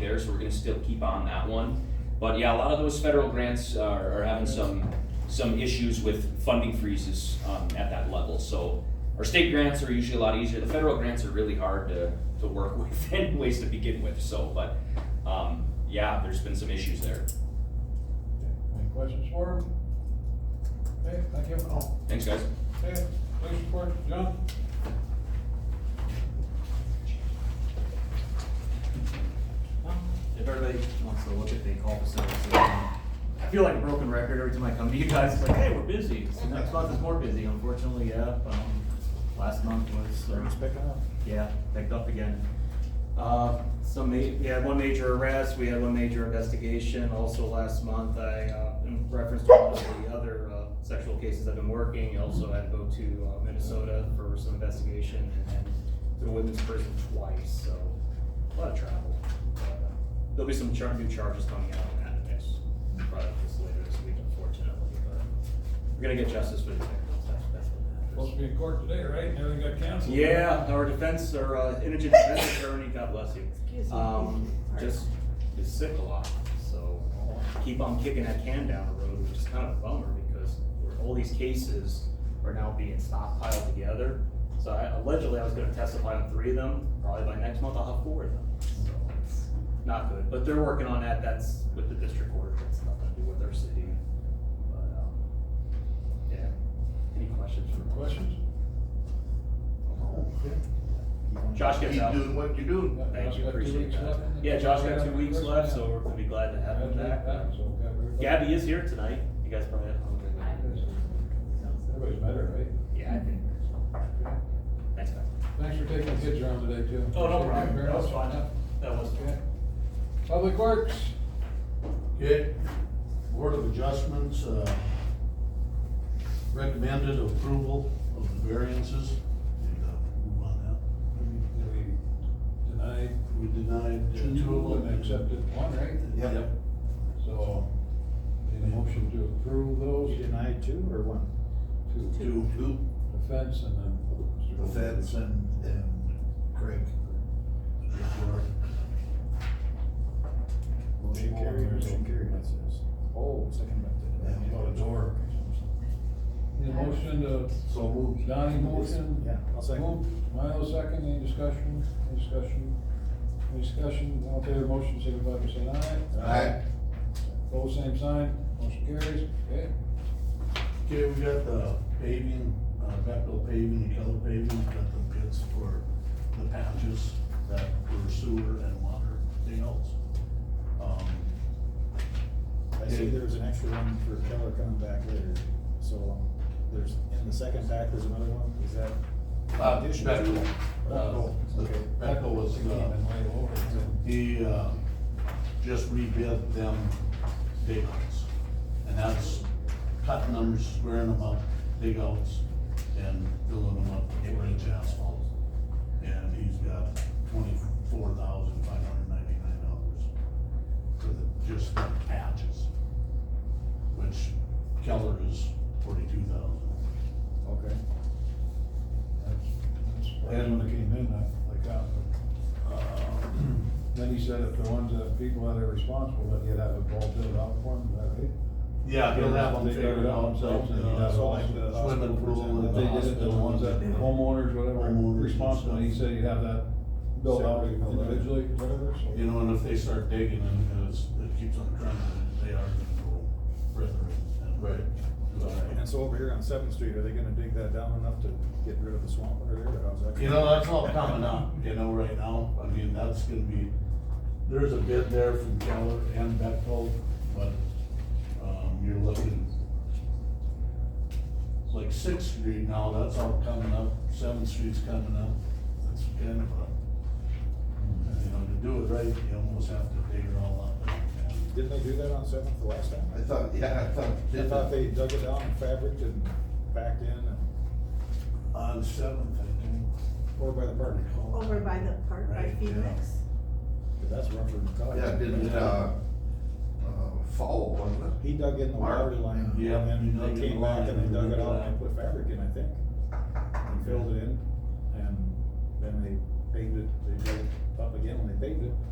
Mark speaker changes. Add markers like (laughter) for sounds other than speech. Speaker 1: there, so we're gonna still keep on that one. But yeah, a lot of those federal grants are, are having some, some issues with funding freezes, um, at that level, so. Our state grants are usually a lot easier, the federal grants are really hard to, to work (laughs) with anyways to begin with, so, but, um, yeah, there's been some issues there.
Speaker 2: Any questions for him? Okay, thank you. Oh,
Speaker 1: Thanks, guys.
Speaker 2: Okay, police report, John?
Speaker 3: If everybody wants to look at the call facilities, I feel like a broken record every time I come to you guys, it's like, hey, we're busy. So next month is more busy, unfortunately, yeah. um, Last month was. uh,
Speaker 2: up.
Speaker 3: yeah, picked up again. Uh, some ma- we had one major arrest, we had one major investigation, also last month, I, uh, in reference to one of the other, uh, sexual cases I've been working, I also had to go to uh, Minnesota for some investigation, and then to a women's prison twice, so, a lot of travel. But, uh, There'll be some char- new charges coming out on that next, probably this later this week unfortunately, but we're gonna get justice for the victims, that's, that's what matters.
Speaker 2: Supposed to be in court today, right? Everything got canceled?
Speaker 3: Yeah, our defense, our uh, indigent defense attorney, God bless you.
Speaker 4: Excuse me.
Speaker 3: Um, just is sick a lot, so keep on kicking that can down the road, which is kind of a bummer because we're- all these cases are now being stockpiled together. So I- allegedly, I was gonna testify on three of them, probably by next month I'll have four of them, so it's not good. But they're working on that, that's with the district court, that's nothing to do with our city. But, um, yeah, any questions for
Speaker 2: Questions?
Speaker 3: Josh gets out.
Speaker 5: Keep doing what you're doing.
Speaker 3: Thank
Speaker 2: Josh
Speaker 3: you,
Speaker 2: got two
Speaker 3: appreciate
Speaker 2: weeks
Speaker 3: that.
Speaker 2: left in the-
Speaker 3: Yeah, Josh got two weeks left, so we're gonna be glad to have him back. Gabby is here tonight, you guys probably have.
Speaker 2: Everybody's better, right?
Speaker 3: Yeah, I think. Thanks, guys.
Speaker 2: Thanks for taking the kids around today, too.
Speaker 3: Oh, no problem.
Speaker 2: Very
Speaker 3: That was
Speaker 2: much.
Speaker 3: fine. That was.
Speaker 2: Okay. Public Works,
Speaker 5: Okay, Board of Adjustments, uh, recommended approval of the variances. And, uh, move on out.
Speaker 2: we denied
Speaker 5: We denied uh,
Speaker 2: two
Speaker 5: two of them.
Speaker 2: and accepted one, right?
Speaker 5: Yep.
Speaker 2: So, need a motion to approve those? Denied two or one? Two.
Speaker 5: Two, two,
Speaker 2: The fence and then.
Speaker 5: the feds and, and Craig.
Speaker 2: Motion carried. Motion carried.
Speaker 6: Oh, second amendment.
Speaker 5: About a door.
Speaker 2: Need a motion to
Speaker 5: So moved.
Speaker 2: Donnie motion?
Speaker 6: Yeah, I'll second.
Speaker 2: Move, Milo second, any discussion, any discussion, any discussion, all in favor of the motion, signify by saying
Speaker 6: Uh,
Speaker 2: aye.
Speaker 5: Aye.
Speaker 2: Both same sign, motion carries, okay?
Speaker 5: Okay, we got the paving, uh, Bethel paving, and color paving, we got the bids for the patches that were sewer and water deals. Um,
Speaker 6: I see there's an extra one for Keller coming back later, so, um, there's, in the second pack, there's another one, is that?
Speaker 5: Uh, Bethel.
Speaker 6: Oh, okay.
Speaker 5: Bethel was, uh, he, uh, just rebid them digouts. And that's cutting them, squaring them up, digouts, and filling them up with four inch asphalt. And he's got twenty-four thousand five hundred ninety-nine dollars for the, just the patches. Which Keller is forty-two thousand. uh,
Speaker 6: Okay.
Speaker 2: And when it came in, I, like, that. Uh, then he said if the ones that people that are responsible, that he'd have a ball filled out for them, that right?
Speaker 5: Yeah, he'll have them
Speaker 2: They figure
Speaker 5: figured
Speaker 2: it out themselves, and he'd
Speaker 5: uh,
Speaker 2: have all
Speaker 5: like the
Speaker 6: hospital
Speaker 5: Swimming pool.
Speaker 6: present
Speaker 5: and
Speaker 2: If they did it, the
Speaker 5: hospital
Speaker 2: ones that homeowners, whatever,
Speaker 5: Homeowners and
Speaker 2: responsible, he
Speaker 5: stuff.
Speaker 2: said you'd have that built out
Speaker 6: Separate, built out.
Speaker 2: individually, whatever, so.
Speaker 5: You know, and if they start digging and it's, it keeps on trending, they are gonna go further and. Right.
Speaker 6: And so over here on Seventh Street, are they gonna dig that down enough to get rid of the swamp over there, or how's that?
Speaker 5: You know, that's all coming up, you know, right now, I mean, that's gonna be, there's a bid there from Keller and Bethel, but, um, you're looking. Like Sixth Street now, that's all coming up, Seventh Street's coming up, that's kind of a, you know, to do it right, you almost have to dig it all up.
Speaker 6: Didn't they do that on Seventh the last time?
Speaker 5: I thought, yeah, I thought.
Speaker 6: I thought they dug it down and fabric and backed in, and,
Speaker 5: On Seventh, I think.
Speaker 6: or by the park,
Speaker 4: Over by the park, by
Speaker 5: Right, yeah.
Speaker 4: Phoenix.
Speaker 6: 'cause that's Rumford and Keller.
Speaker 7: Yeah, didn't, uh, uh,
Speaker 5: äh,
Speaker 7: fall, wasn't it?
Speaker 6: He dug in the water line, and
Speaker 5: Yeah.
Speaker 6: then they came back and they dug it out and they put fabric in, I think. And filled it in, and then they paved it, they dug it up again when they paved it.